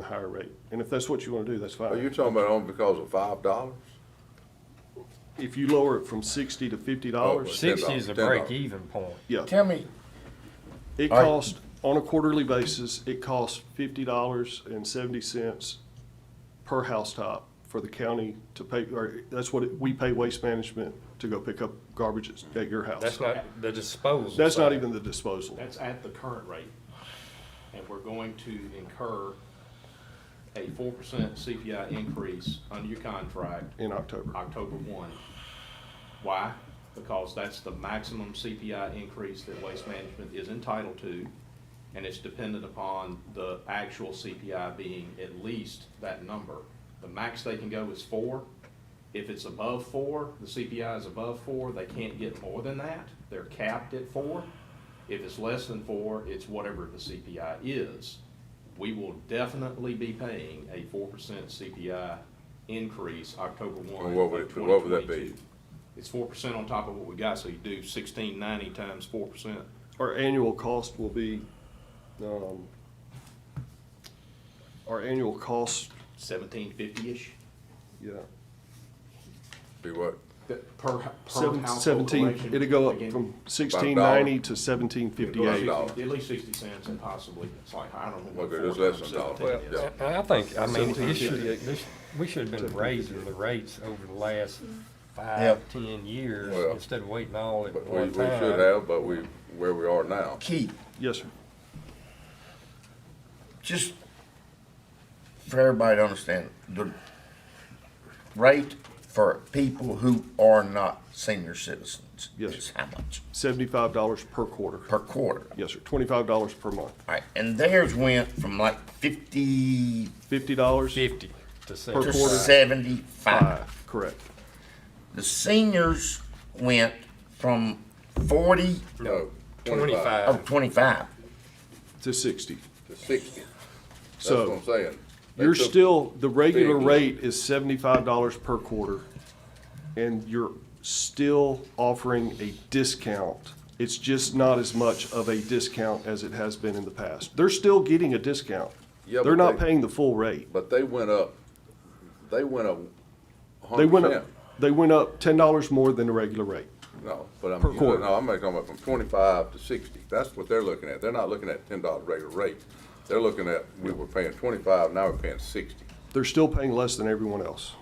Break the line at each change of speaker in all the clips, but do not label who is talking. a higher rate. And if that's what you want to do, that's
Are you
fine.
Oh, talking about only because of five dollars?
If you lower it from sixty to
Oh,
fifty dollars,
Sixty is a
$10.
break even point.
yeah,
Tell me,
it
All right.
costs, on a quarterly basis, it costs fifty dollars and seventy cents per housetop for the county to pay, or that's what, it- we pay waste management to go pick up garbage at- at your house.
That's not the disposal.
That's not
side.
even the disposal.
That's at the current rate. And we're going to incur a four percent CPI increase under your contract
in October.
October one. Why? Because that's the maximum CPI increase that Waste Management is entitled to, and it's dependent upon the actual CPI being at least that number. The max they can go is four. If it's above four, the CPI is above four, they can't get more than that. They're capped at four. If it's less than four, it's whatever the CPI is. We will definitely be paying a four percent CPI increase October one
And what would
of
it-
twenty twenty-two.
what would that be?
It's four percent on top of what we got, so you do sixteen ninety times four percent.
Our annual cost will be, um, our annual cost,
Seventeen fifty-ish
yeah,
Be what?
per, per
seven-
household
seventeen,
collection.
it'll go up
Again,
from sixteen ninety to seventeen
Five
fifty-eight.
dollars.
At least sixty cents and possibly, it's like, I don't know. what
Okay, that's
four
less
times
than a dollar.
seventeen
Well,
is.
Yeah.
I I think, I mean,
Seventeen
this should,
fifty-eight.
this, we should have been raising the rates over the last
Yeah.
five, ten years
Well,
instead of waiting all at
But we,
one
we should
time.
have, but we, where we are now.
Keith,
Yes, sir.
just for everybody to understand, the rate for people who are not senior citizens
Yes.
is how much
Seventy-five dollars per quarter.
per quarter?
Yes, sir. Twenty-five dollars per month.
All right, and theirs went from like fifty
Fifty dollars?
Fifty to
to
quarter.
sixty.
seventy-five.
Five, correct.
The seniors went from forty
No,
oh,
Twenty-five.
25.
To sixty.
To sixty. That's what
So
I'm saying. They
you're
took-
still, the regular
Big.
rate is seventy-five dollars per quarter. And you're still offering a discount. It's just not as much of a discount as it has been in the past. They're still getting a discount.
Yeah,
They're
but
not
they-
paying the full rate.
But they went up, they went up a
They
hundred
went up,
percent.
they went up ten dollars more than the regular rate.
No, but I'm,
per
you know,
quarter.
no, I'm talking about from twenty-five to sixty. That's what they're looking at. They're not looking at ten dollar regular rate. They're looking at, we were paying twenty-five, now we're paying sixty.
They're still paying less than everyone else.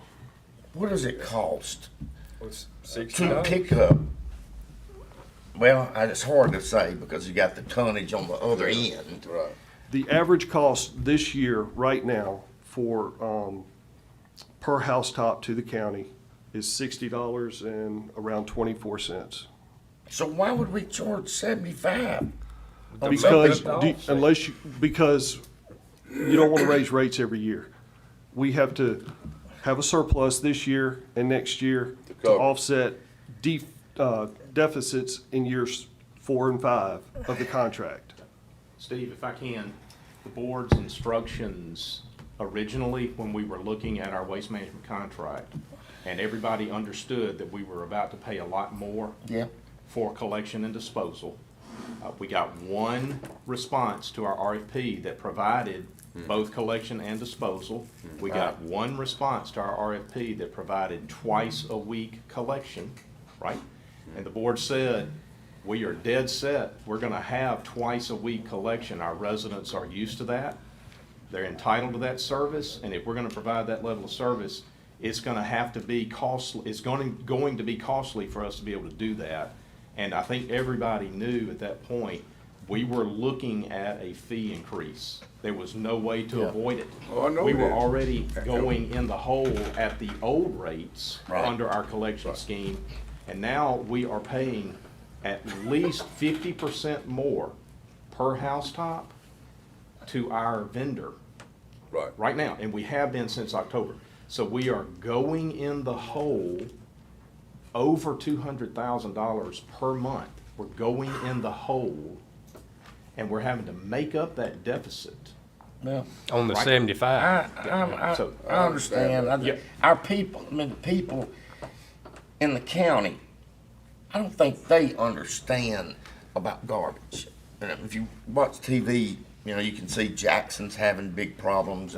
What does it cost
Was Sixty
to
dollars.
pick up? Well, I- it's hard to say because you got the tonnage on the other end.
Right.
The average cost this year, right now, for, um, per housetop to the county is sixty dollars and around twenty-four cents.
So why would we charge 75?
The
Because,
backup
do-
dogs.
unless you, because you don't wanna raise rates every year. We have to have a surplus this year and next year to
cover.
offset def, uh, deficits in years four and five of the contract.
Steve, if I can, the board's instructions originally, when we were looking at our waste management contract, and everybody understood that we were about to pay a lot more
Yeah.
for collection and disposal. Uh, we got one response to our RFP that provided both collection and disposal. We got one response to our RFP that provided twice a week collection, right? And the board said, we are dead set, we're gonna have twice a week collection, our residents are used to that. They're entitled to that service, and if we're gonna provide that level of service, it's gonna have to be costly, it's going, going to be costly for us to be able to do that. And I think everybody knew at that point, we were looking at a fee increase. There was no way to avoid it.
Oh, I know
We
it
were
is.
already going in the hole at the old rates
Right.
under our collection scheme. And now we are paying at least fifty percent more per housetop to our vendor
Right.
right now, and we have been since October. So we are going in the hole over two hundred thousand dollars per month. We're going in the hole, and we're having to make up that deficit.
Well,
On the
Right.
I,
seventy-five.
I, I,
So-
I understand. I-
Yeah.
Our people, I mean, the people in the county, I don't think they understand about garbage. And if you watch TV, you know, you can see Jackson's having big problems